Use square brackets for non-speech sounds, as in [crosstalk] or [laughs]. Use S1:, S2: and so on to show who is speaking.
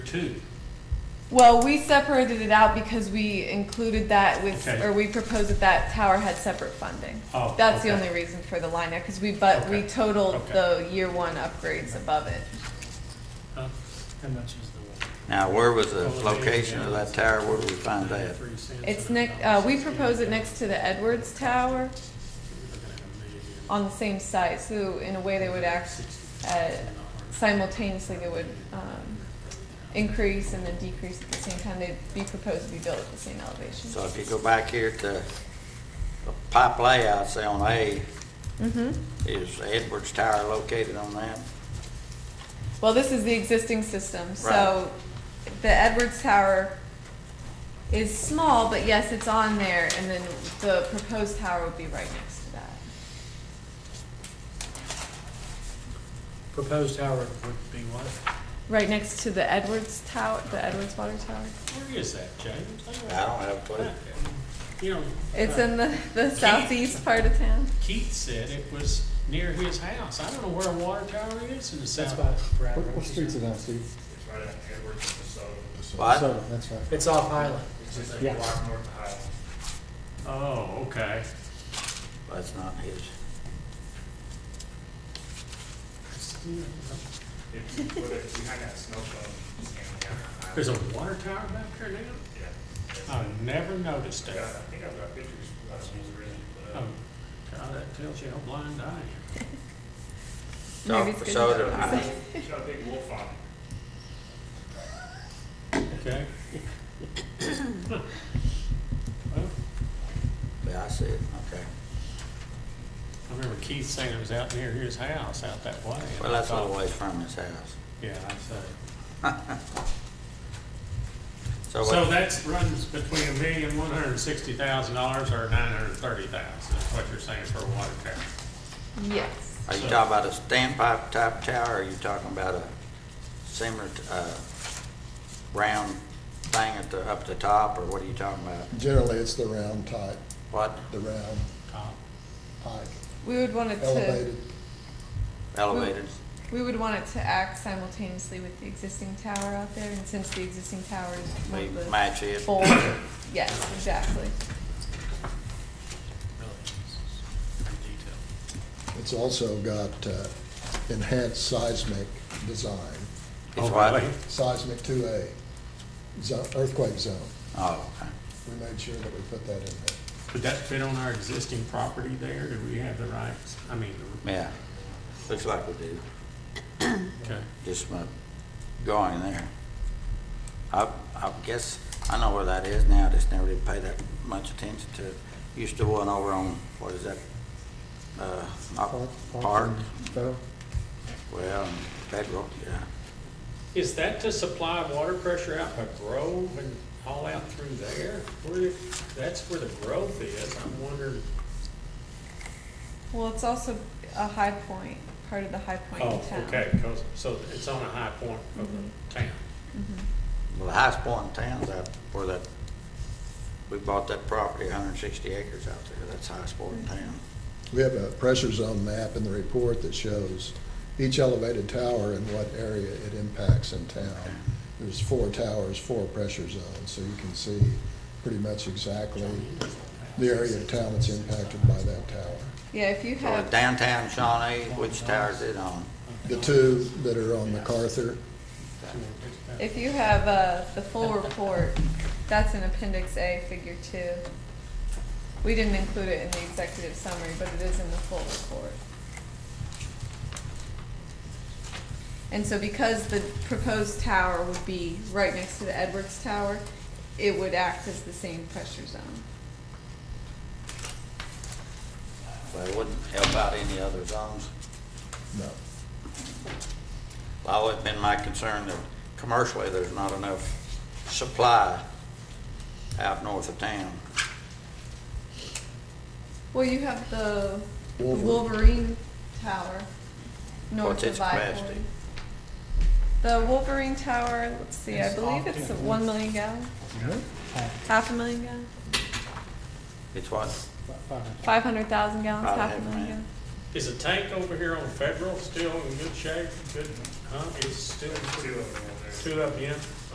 S1: two.
S2: Well, we separated it out because we included that with,
S1: Okay.
S2: or we proposed that that tower had separate funding.
S1: Oh,
S2: That's the
S1: okay.
S2: only reason for the line there, because we, but we
S1: Okay.
S2: totaled
S1: Okay.
S2: the year one upgrades above it.
S1: How much is the
S3: Now, where was the location of that tower? Where do we find that?
S2: It's next, uh, we propose it next to the Edwards Tower on the same site, so in a way they would act uh, simultaneously, they would, um, increase and then decrease at the same time. They'd be proposed to be built at the same elevation.
S3: So if you go back here to the pipe layout, say on A,
S2: Mm-hmm.
S3: is Edwards Tower located on that?
S2: Well, this is the existing system,
S3: Right.
S2: so the Edwards Tower is small, but yes, it's on there, and then the proposed tower would be right next to that.
S1: Proposed tower would be what?
S2: Right next to the Edwards Tower, the Edwards Water Tower.
S1: Where is that, James?
S3: I don't have a clue.
S1: You know.
S2: It's
S1: uh,
S2: in the, the
S3: [laughs]
S2: southeast part of town.
S1: Keith said it was near his house. I don't know where a water tower is in the south.
S4: Brad
S5: What, what
S4: Rose's
S5: street's it
S4: house.
S5: on, Steve?
S6: It's right at Edwards, so
S3: What?
S5: Southern, that's right.
S4: It's off Highland.
S6: it's just a
S5: Yeah.
S6: block north of Highland.
S1: Oh, okay.
S3: That's not his.
S6: It's with it- behind that snow cone, it's down there on Highland.
S1: There's a water tower back there now?
S6: Yeah. It's-
S1: I never noticed
S6: I
S1: it.
S6: got- I think I've got pictures. That's what was originally put
S1: Oh,
S6: up.
S1: God, that tells you how blind I am.
S3: So-
S2: Maybe it's good.
S3: so
S2: to-
S3: did I.
S1: Oh.
S6: It's got a big wolf on it.
S1: Okay. Well,
S3: Yeah, I see it, okay.
S1: I remember Keith saying it was out near his house, out that way. and
S3: Well,
S1: I
S3: that's a little
S1: thought-
S3: ways from his house.
S1: Yeah, I say. So
S3: So Oh, what-
S1: that's runs between a million, one hundred and sixty thousand dollars or nine hundred and thirty thousand, is what you're saying for a water tower.
S2: Yes.
S3: are you talking about a standpipe type tower? Or are you talking about a similar, t- uh, round thing at the, up the top? Or what are you talking about?
S5: Generally, it's the round type,
S3: What?
S5: the round
S1: Top.
S5: height,
S2: We would want it to,
S5: elevated.
S3: Elevated?
S2: we would want it to act simultaneously with the existing tower out there, and since the existing tower is one
S3: We
S2: of the
S3: match it? [coughs]
S2: four, yes, exactly.
S5: It's also got uh, enhanced seismic design,
S3: It's
S1: Oh,
S3: what?
S1: really?
S5: seismic 2A, zo- earthquake zone.
S3: Oh, okay.
S5: We made sure that we put that in there.
S1: Would that fit on our existing property there? Do we have the rights? I mean,
S3: Yeah, looks like we do,
S1: okay.
S3: just my going there. I, I guess, I know where that is now, just never did pay that much attention to it. Used to one over on, what is that, uh, not Park,
S5: Federal?
S3: well, Federal, yeah.
S1: Is that to supply water pressure out by Grove and all out through there? Where, that's where the growth is. I'm wondering,
S2: Well, it's also a high point, part of the high point
S1: oh,
S2: of town.
S1: okay, 'cause- so it's on a high point of the town.
S3: Well, the highest point in town's out where that, we bought that property, hundred and sixty acres out there, that's the highest point in town.
S5: We have a pressure zone map in the report that shows each elevated tower and what area it impacts in town. There's four towers, four pressure zones, so you can see pretty much exactly the area of town that's impacted by that tower.
S2: Yeah, if you
S3: So
S2: have,
S3: downtown Shawnee, which tower is it on?
S5: The two that are on MacArthur,
S2: if you have, uh, the full report, that's in appendix A, figure two. We didn't include it in the executive summary, but it is in the full report. And so because the proposed tower would be right next to the Edwards Tower, it would act as the same pressure zone.
S3: But it wouldn't help out any other zones.
S5: no.
S3: Well, it's been my concern that commercially, there's not enough supply out north of town.
S2: Well, you have the
S5: Wolverine.
S2: Wolverine Tower north
S3: What's
S2: of
S3: its
S2: I forty.
S3: capacity?
S2: The Wolverine Tower, let's see, I
S4: It's
S2: believe
S4: off,
S2: it's
S4: yeah.
S2: one million gallon, half a million gallon,
S3: It's what,
S2: five hundred thousand gallons,
S3: About
S2: half
S3: half
S2: a
S3: a
S2: million gallon.
S3: million.
S1: Is the tank over here on Federal still in good shape? Good, huh? It's still
S6: Two of them over there.
S1: two up in?